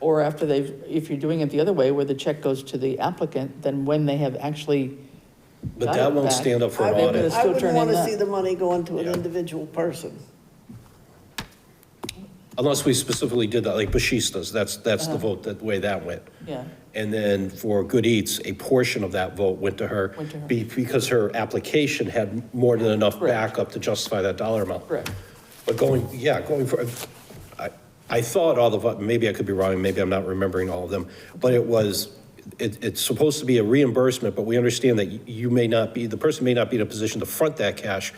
or after they've, if you're doing it the other way, where the check goes to the applicant, then when they have actually, But Got that it won't back. stand up for I an would- audit. still I wouldn't turn want in to that. see the money go into an Yeah. individual person. Unless we specifically did that, like Bashistas, that's, that's Uh-huh. the vote, that way that went. yeah, And then for Good Eats, a portion of that vote went to her. Went to her. be- Because her application had more than enough Correct. backup to justify that dollar amount. correct. But going, yeah, going for, I, I thought all the, vo- maybe I could be wrong, maybe I'm not remembering all of them, but it was, it, it's supposed to be a reimbursement, but we understand that you may not be, the person may not be in a position to front that cash,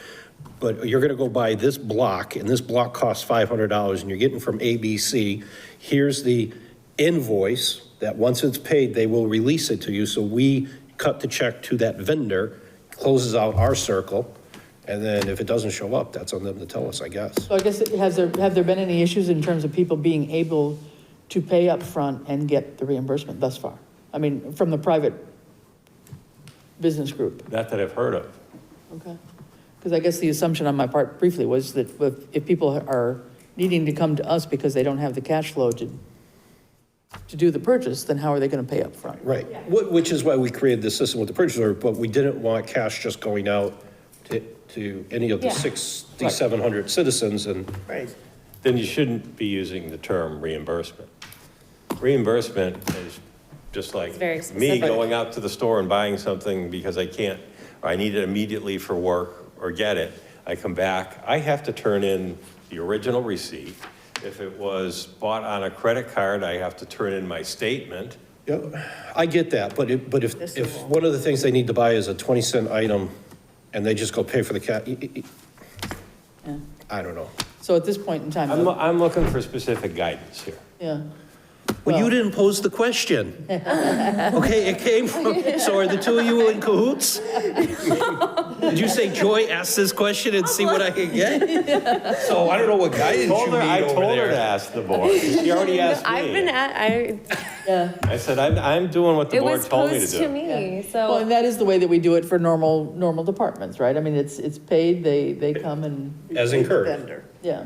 but you're gonna go buy this block, and this block costs five hundred dollars, and you're getting from ABC, here's the invoice, that once it's paid, they will release it to you, so we cut the check to that vendor, closes out our circle, and then if it doesn't show up, that's on them to tell us, I guess. So I guess, it- has there, have there been any issues in terms of people being able to pay up front and get the reimbursement thus far? I mean, from the private business group? Not that I've heard of. Okay. Because I guess the assumption on my part briefly was that if, if people are needing to come to us because they don't have the cash flow to, to do the purchase, then how are they going to pay up front? Right, Wh- which is why we created the system with the purchase order, but we didn't want cash just going out to, to any of the Yeah. 6,700 citizens, and Right. Then you shouldn't be using the term reimbursement. Reimbursement is just like very me specific. going out to the store and buying something because I can't, or I need it immediately for work or get it. I come back, I have to turn in the original receipt. If it was bought on a credit card, I have to turn in my statement. Yeah, I get that, but it, but if, if one of the things they need to buy is a 20 cent item, and they just go pay for the ca, i- i- Yeah. i- I don't know. So at this point in time, I'm, though- I'm looking for specific guidance here. yeah, Well, you Well- didn't pose the question. Okay, it came from, so are the two of you in cahoots? Did you say, Joy, ask this question and see what I can get? So I don't know what guidance you Told need her- I over told her to there. ask the board. She already asked me. I've been at, I, yeah. I said, I'm, I'm doing what the it board was told me to posed to do. me, Well, and so. that is the way that we do it for normal, normal departments, right? I mean, it's, it's paid, they, they come and, As incurred. Vendor. yeah.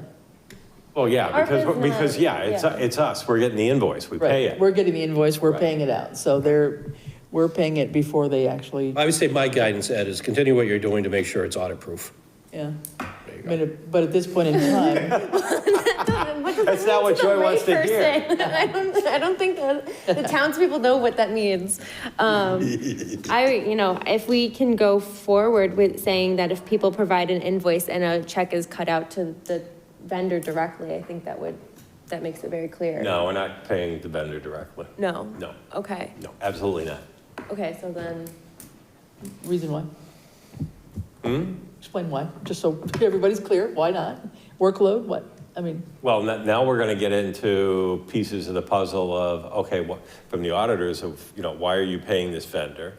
Well, Oh, yeah, Ours because, is because, not- yeah, it's, yeah. it's us, we're getting the invoice, we pay Right. it. We're getting the invoice, we're Right. paying it out. So they're, we're paying it before they actually, I would say my guidance, Ed, is continue what you're doing to make sure it's audit-proof. yeah. I mean, But at this point in time, That's not what Joy wants to hear. I don't, I don't think that, the townspeople know what that means. Um, I, you know, if we can go forward with saying that if people provide an invoice and a check is cut out to the vendor directly, I think that would, that makes it very clear. No, we're not paying the vendor directly. No? No. Okay, No, absolutely not. okay, so then, Reason why? Hmm? Explain why, just so everybody's clear, why not? Workload, what, I mean, Well, n- now we're gonna get into pieces of the puzzle of, okay, what, from the auditors of, you know, why are you paying this vendor?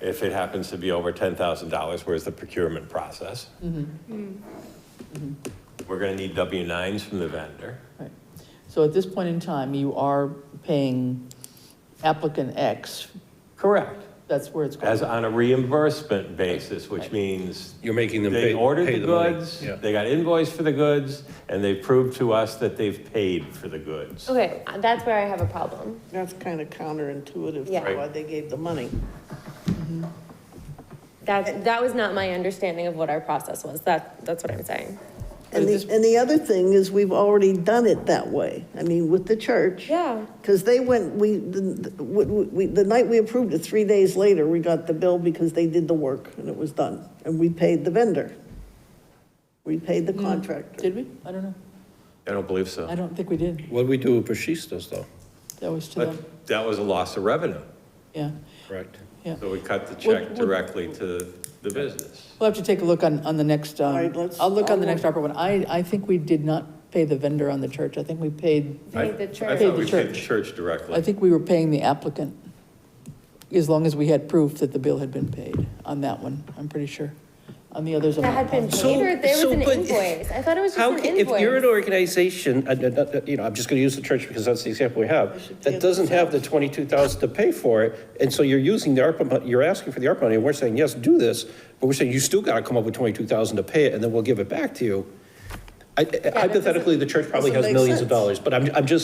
If it happens to be over ten thousand dollars, where's the procurement process? Mm-hmm. We're gonna need W nines from the vendor. right. So at this point in time, you are paying applicant X, Correct. that's where it's As going. on a reimbursement basis, which means You're making them pay, They ordered pay the the money. goods, Yeah. they got invoice for the goods, and they proved to us that they've paid for the goods. Oh. okay, that's where I have a problem. That's kind of counterintuitive Yeah. to why they gave the money. That, that was not my understanding of what our process was. That, that's what I'm saying. And the, and the other thing is we've already done it that way. I mean, with the church. Yeah. Because they went, we, the, the- we- we, the night we approved it, three days later, we got the bill because they did the work and it was done. And we paid the vendor. We paid the Mm. contractor. Did we? I don't know, I don't believe I so. don't think we did, What do we do with Pashistas, though? that was to them, But that was a loss of revenue, yeah, Correct. yeah. so we cut the check Would- would- directly to the business. We'll have to take a look on, on the next, um, All right, let's- I'll look on the I'll- next ARPA one. I, I think we did not pay the vendor on the church, I think we paid, I- Paid the I church. Paid thought the we paid the church. church I directly. think we were paying the applicant, as long as we had proof that the bill had been paid on that one, I'm pretty sure. On the others, I'm That not had been positive. So- paid or there was so, an but- invoice. I thought it was just How, an can- if you're an invoice. organization, and, and, uh, you know, I'm just going to use the church because that's the example we have, be that able doesn't have the 22,000 to pay for it, and so you're using the ARPA, mon- you're asking for the ARPA money, and we're saying, yes, do this, but we're saying, you still got to come up with 22,000 to pay it, and then we'll give it back to you. I- I- Hypothetically, the church probably has doesn't make millions of sense. dollars, but I'm, I'm just